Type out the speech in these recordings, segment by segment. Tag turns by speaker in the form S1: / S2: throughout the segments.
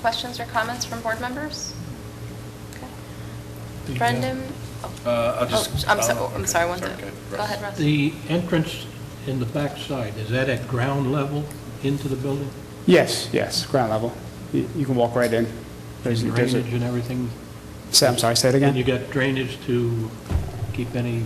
S1: Questions or comments from board members?
S2: The, uh,
S1: Brendan?
S3: Uh, I'll
S1: Oh,
S3: just.
S1: I'm
S3: I'll-
S1: so- I'm
S3: okay.
S1: sorry, one second.
S3: okay,
S1: Go
S3: Russ.
S1: ahead, Russ.
S2: The entrance in the backside, is that at ground level into the building?
S4: Yes, yes, ground level. Y- You can walk right in. There's
S2: And
S4: there's a-
S2: Drainage and everything?
S4: Say- I'm sorry, say it
S2: And you
S4: again?
S2: got drainage to keep any,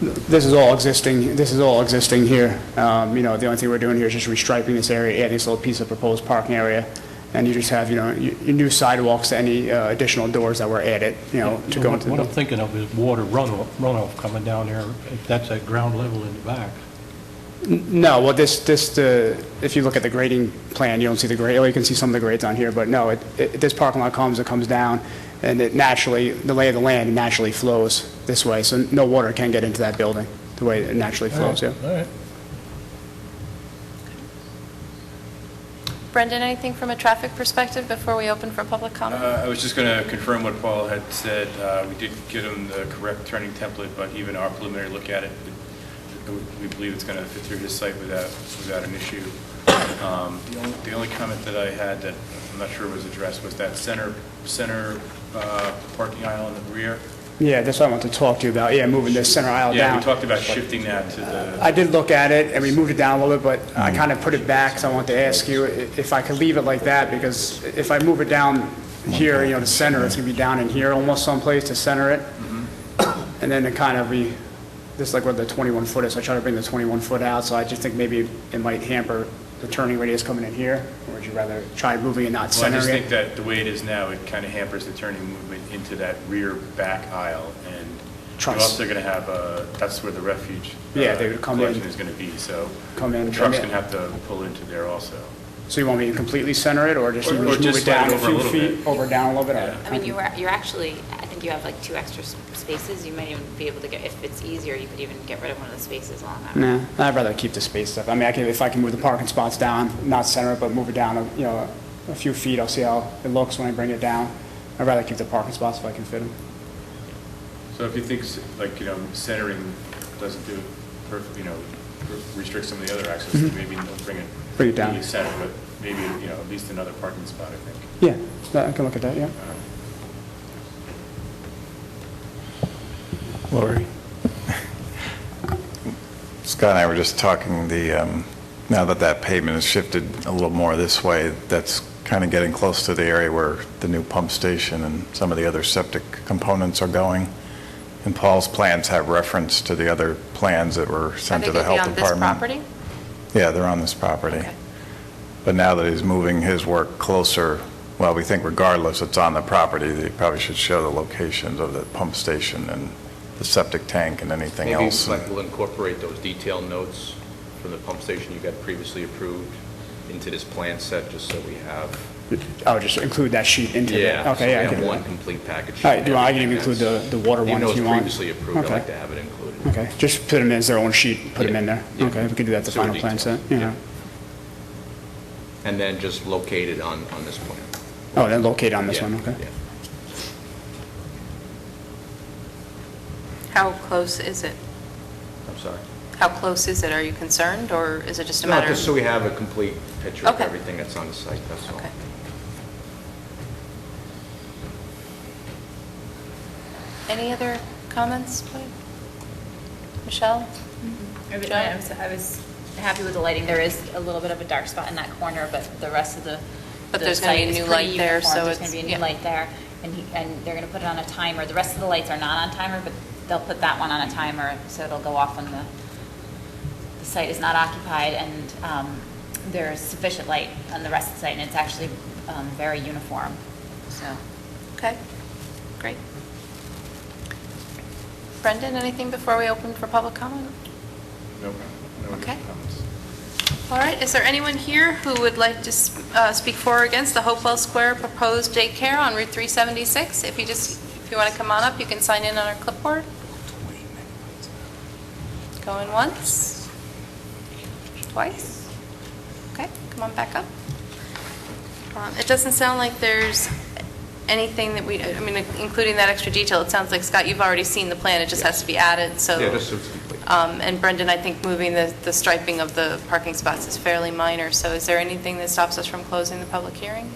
S4: This is all existing, this is all existing here. Um, You know, the only thing we're doing here is just restriping this area, adding this little piece of proposed parking area, and you just have, you know, y- your new sidewalks, any uh, additional doors that were added, you know, to go into the
S2: what I'm
S4: building.
S2: thinking of is water runoff, runoff coming down there, if that's at ground level in the back.
S4: No, well, this, this, the, if you look at the grading plan, you don't see the grade, well, you can see some of the grades on here, but no, it, it- this parking lot comes, it comes down, and it naturally, the lay of the land naturally flows this way, so no water can get into that building, the way it naturally flows, yeah.
S3: All right.
S1: Brendan, anything from a traffic perspective before we open for public comment?
S3: Uh, I was just going to confirm what Paul had said. Uh, We did get him the correct turning template, but even our preliminary look at it, we- we believe it's going to fit through his site without, without an issue. Um, The only, the only comment that I had that I'm not sure was addressed was that center, center uh, parking aisle in the rear.
S4: Yeah, that's what I want to talk to you about, yeah, moving this center aisle down.
S3: Yeah, we talked about shifting that to the,
S4: I did look at it, and we moved it down a little bit, but I kind of put it back, so I wanted to ask you i- if I could leave it like that, because if I move it down here, you know, to center, it's going to be down in here almost someplace to center it. And then it kind of, we, this is like where the 21 foot is, I try to bring the 21 foot out, so I just think maybe it might hamper the turning radius coming in here, or would you rather try moving it not
S3: well, I just
S4: centering
S3: think
S4: it?
S3: that the way it is now, it kind of hampers the turning movement into that rear back aisle. And you're
S4: Trucks.
S3: also going to have, uh, that's where the refuge. uh,
S4: Yeah, they would come in.
S3: Collection is going to be, so.
S4: Come in,
S3: Trucks
S4: come
S3: going
S4: in.
S3: to have to pull into there also.
S4: So you want me to completely center it, or just
S3: Or-
S4: even
S3: or
S4: just move
S3: just
S4: it
S3: slide
S4: down
S3: it
S4: a
S3: over a
S4: few
S3: little
S4: feet,
S3: bit.
S4: over, down a little bit? All right.
S5: I mean, you were, you're actually, I think you have like two extra s- spaces, you might even be able to get, if it's easier, you could even get rid of one of the spaces along that.
S4: Nah, I'd rather keep the space up. I mean, I can, if I can move the parking spots down, not center it, but move it down, a- you know, a few feet, I'll see how it looks when I bring it down. I'd rather keep the parking spots if I can fit them.
S3: So if you think, s- like, you know, centering doesn't do, it perf- you know, restricts some of the other access, maybe they'll bring it.
S4: Mm-hmm. Bring it down.
S3: really Center, but maybe, you know, at least another parking spot, I think.
S4: Yeah, I can look at that, yeah.
S6: Lori. Scott and I were just talking, the, um, now that that pavement has shifted a little more this way, that's kind of getting close to the area where the new pump station and some of the other septic components are going. And Paul's plans have reference to the other plans that were sent to the health department.
S1: Are they going to be on this property?
S6: Yeah, they're on this property.
S1: Okay.
S6: But now that he's moving his work closer, well, we think regardless it's on the property, they probably should show the locations of the pump station and the septic tank and anything
S7: Maybe
S6: else.
S7: like we'll incorporate those detailed notes from the pump station you got previously approved into this plan set, just so we have.
S4: I'll just include that sheet into it.
S7: Yeah, so we
S4: Okay, yeah. I
S7: have
S4: can-
S7: one complete package.
S4: All right, do you want- I can
S7: Everything
S4: include
S7: that's-
S4: the- the water one if you
S7: Even though
S4: want.
S7: it's previously approved, I'd
S4: Okay.
S7: like to have it included.
S4: Okay, just put them as their own sheet, put them
S7: Yeah,
S4: in there.
S7: yeah.
S4: Okay, we can do that at the
S7: Sewer
S4: final plan
S7: detail,
S4: set, yeah.
S7: yeah. And then just locate it on, on this plan.
S4: Oh, then locate on this
S7: Yeah,
S4: one, okay.
S7: yeah.
S1: How close is it?
S7: I'm sorry.
S1: How close is it? Are you concerned, or is it just a
S7: No,
S1: matter?
S7: just so we have a complete picture of
S1: Okay.
S7: everything that's on the site, that's all.
S1: Okay. Any other comments, please? Michelle?
S5: I was- I was- I was happy with the lighting, there is a little bit of a dark spot in that corner, but the rest of the.
S1: But
S5: the
S1: there's gonna be
S5: site
S1: a
S5: is
S1: new
S5: pretty
S1: light there,
S5: uniform.
S1: so
S5: There's
S1: it's-
S5: going to be a
S1: yeah.
S5: new light there, and he, and they're going to put it on a timer, the rest of the lights are not on timer, but they'll put that one on a timer, so it'll go off when the, the site is not occupied, and um, there is sufficient light on the rest of the site, and it's actually um, very uniform, so.
S1: Okay, great. Brendan, anything before we open for public comment?
S3: No, no
S1: Okay.
S3: comments.
S1: All right, is there anyone here who would like to s- uh, speak for or against the Hopewell Square proposed daycare on Route 376? If you just, if you want to come on up, you can sign in on our clipboard. Going once, twice. Okay, come on back up. Um, It doesn't sound like there's anything that we, I mean, including that extra detail, it sounds like, Scott, you've already seen the plan, it just has to be added, so.
S7: Yeah, just so it's complete.
S1: Um, And Brendan, I think moving the the striping of the parking spots is fairly minor, so is there anything that stops us from closing the public hearing?